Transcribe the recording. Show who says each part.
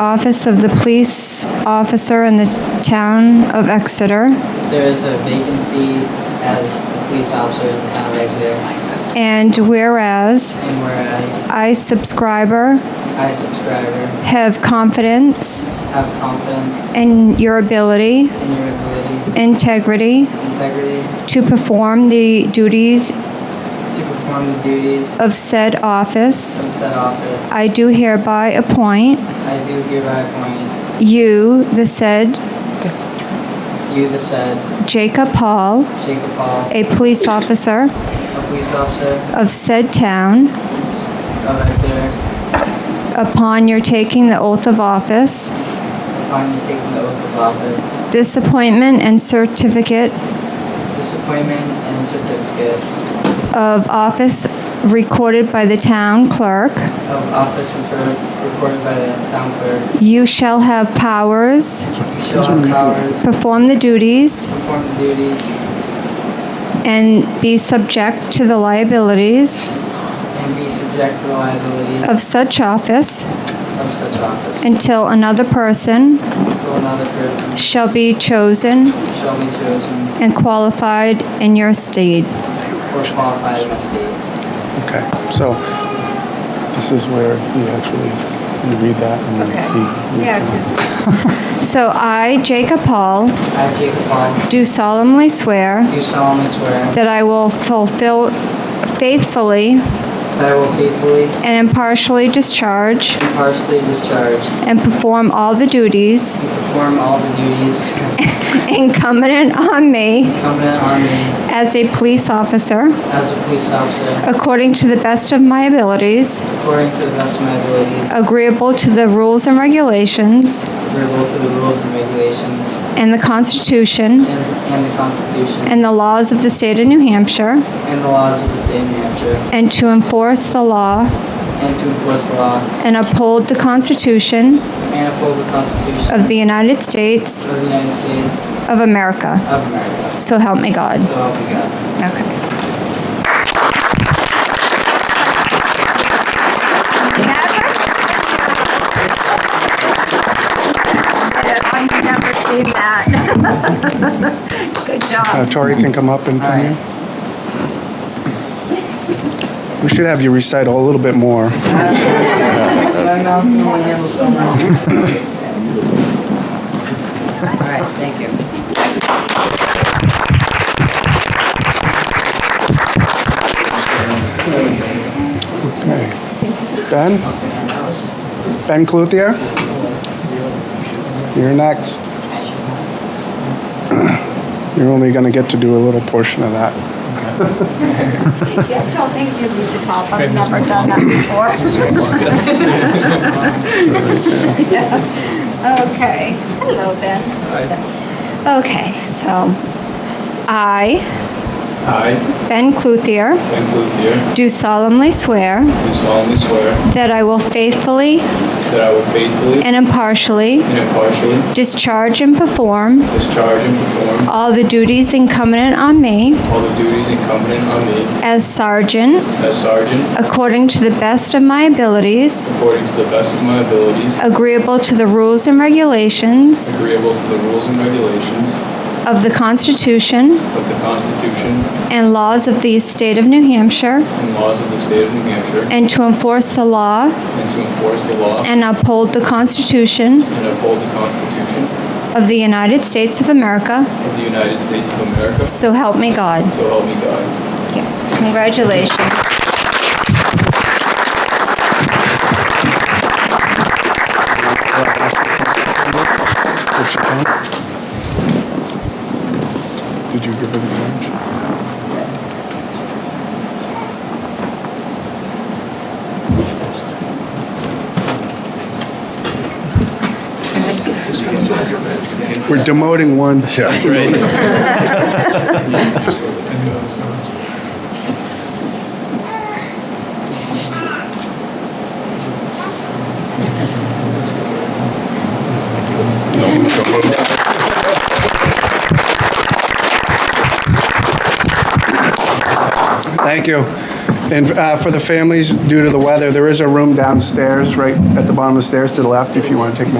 Speaker 1: office of the police officer in the town of Exeter,
Speaker 2: There is a vacancy as a police officer in the town of Exeter,
Speaker 1: and whereas
Speaker 2: and whereas
Speaker 1: I, subscriber,
Speaker 2: I, subscriber,
Speaker 1: have confidence
Speaker 2: have confidence
Speaker 1: in your ability,
Speaker 2: in your ability,
Speaker 1: integrity,
Speaker 2: integrity
Speaker 1: to perform the duties
Speaker 2: to perform the duties
Speaker 1: of said office,
Speaker 2: of said office,
Speaker 1: I do hereby appoint
Speaker 2: I do hereby appoint
Speaker 1: you, the said
Speaker 2: you, the said
Speaker 1: Jacob Hall,
Speaker 2: Jacob Hall,
Speaker 1: a police officer
Speaker 2: a police officer
Speaker 1: of said town,
Speaker 2: of Exeter,
Speaker 1: upon your taking the oath of office.
Speaker 2: upon you taking the oath of office,
Speaker 1: This appointment and certificate
Speaker 2: this appointment and certificate
Speaker 1: of office recorded by the town clerk.
Speaker 2: of office refer- recorded by the town clerk,
Speaker 1: You shall have powers,
Speaker 2: you shall have powers to
Speaker 1: perform the duties,
Speaker 2: perform the duties
Speaker 1: and be subject to the liabilities
Speaker 2: and be subject to the liability
Speaker 1: of such office
Speaker 2: of such office
Speaker 1: until another person
Speaker 2: until another person
Speaker 1: shall be chosen
Speaker 2: shall be chosen
Speaker 1: and qualified in your stead.
Speaker 2: or qualified in the state.
Speaker 3: Okay, so this is where you actually, you read that and then he reads it.
Speaker 1: So I, Jacob Hall,
Speaker 2: I, Jacob Hall,
Speaker 1: do solemnly swear
Speaker 2: do solemnly swear
Speaker 1: that I will fulfill faithfully
Speaker 2: that I will faithfully
Speaker 1: and impartially discharge
Speaker 2: and partially discharge
Speaker 1: and perform all the duties
Speaker 2: and perform all the duties
Speaker 1: incumbent on me
Speaker 2: incumbent on me
Speaker 1: as a police officer
Speaker 2: as a police officer
Speaker 1: according to the best of my abilities,
Speaker 2: according to the best of my abilities,
Speaker 1: agreeable to the rules and regulations
Speaker 2: agreeable to the rules and regulations
Speaker 1: and the Constitution
Speaker 2: and and the Constitution
Speaker 1: and the laws of the state of New Hampshire,
Speaker 2: and the laws of the state of New Hampshire,
Speaker 1: and to enforce the law
Speaker 2: and to enforce the law
Speaker 1: and uphold the Constitution
Speaker 2: and uphold the Constitution
Speaker 1: of the United States
Speaker 2: of the United States
Speaker 1: of America.
Speaker 2: of America.
Speaker 1: So help me God.
Speaker 2: So help me God.
Speaker 1: Okay.
Speaker 4: I've never seen that. Good job.
Speaker 3: Uh, Tori can come up and come here. We should have you recite a little bit more.
Speaker 2: My mouth can only handle so much. All right, thank you.
Speaker 3: Okay. Ben? Ben Cluthier? You're next. You're only going to get to do a little portion of that.
Speaker 4: Yeah, don't make me read the top. I've never done that before. Yeah. Okay. Hello, Ben.
Speaker 1: Okay, so I,
Speaker 5: I,
Speaker 1: Ben Cluthier,
Speaker 5: Ben Luthier,
Speaker 1: do solemnly swear
Speaker 5: do solemnly swear
Speaker 1: that I will faithfully
Speaker 5: that I will faithfully
Speaker 1: and impartially
Speaker 5: and impartially
Speaker 1: discharge and perform
Speaker 5: discharge and perform
Speaker 1: all the duties incumbent on me
Speaker 5: all the duties incumbent on me
Speaker 1: as sergeant
Speaker 5: as sergeant
Speaker 1: according to the best of my abilities,
Speaker 5: according to the best of my abilities,
Speaker 1: agreeable to the rules and regulations
Speaker 5: agreeable to the rules and regulations
Speaker 1: of the Constitution
Speaker 5: of the Constitution
Speaker 1: and laws of the state of New Hampshire,
Speaker 5: and laws of the state of New Hampshire,
Speaker 1: and to enforce the law
Speaker 5: and to enforce the law
Speaker 1: and uphold the Constitution
Speaker 5: and uphold the Constitution
Speaker 1: of the United States of America,
Speaker 5: of the United States of America.
Speaker 1: so help me God.
Speaker 5: So help me God.
Speaker 1: Congratulations.
Speaker 3: Did you give her the orange? We're demoting one. Thank you. And uh, for the families, due to the weather, there is a room downstairs, right at the bottom of the stairs to the left, if you want to take a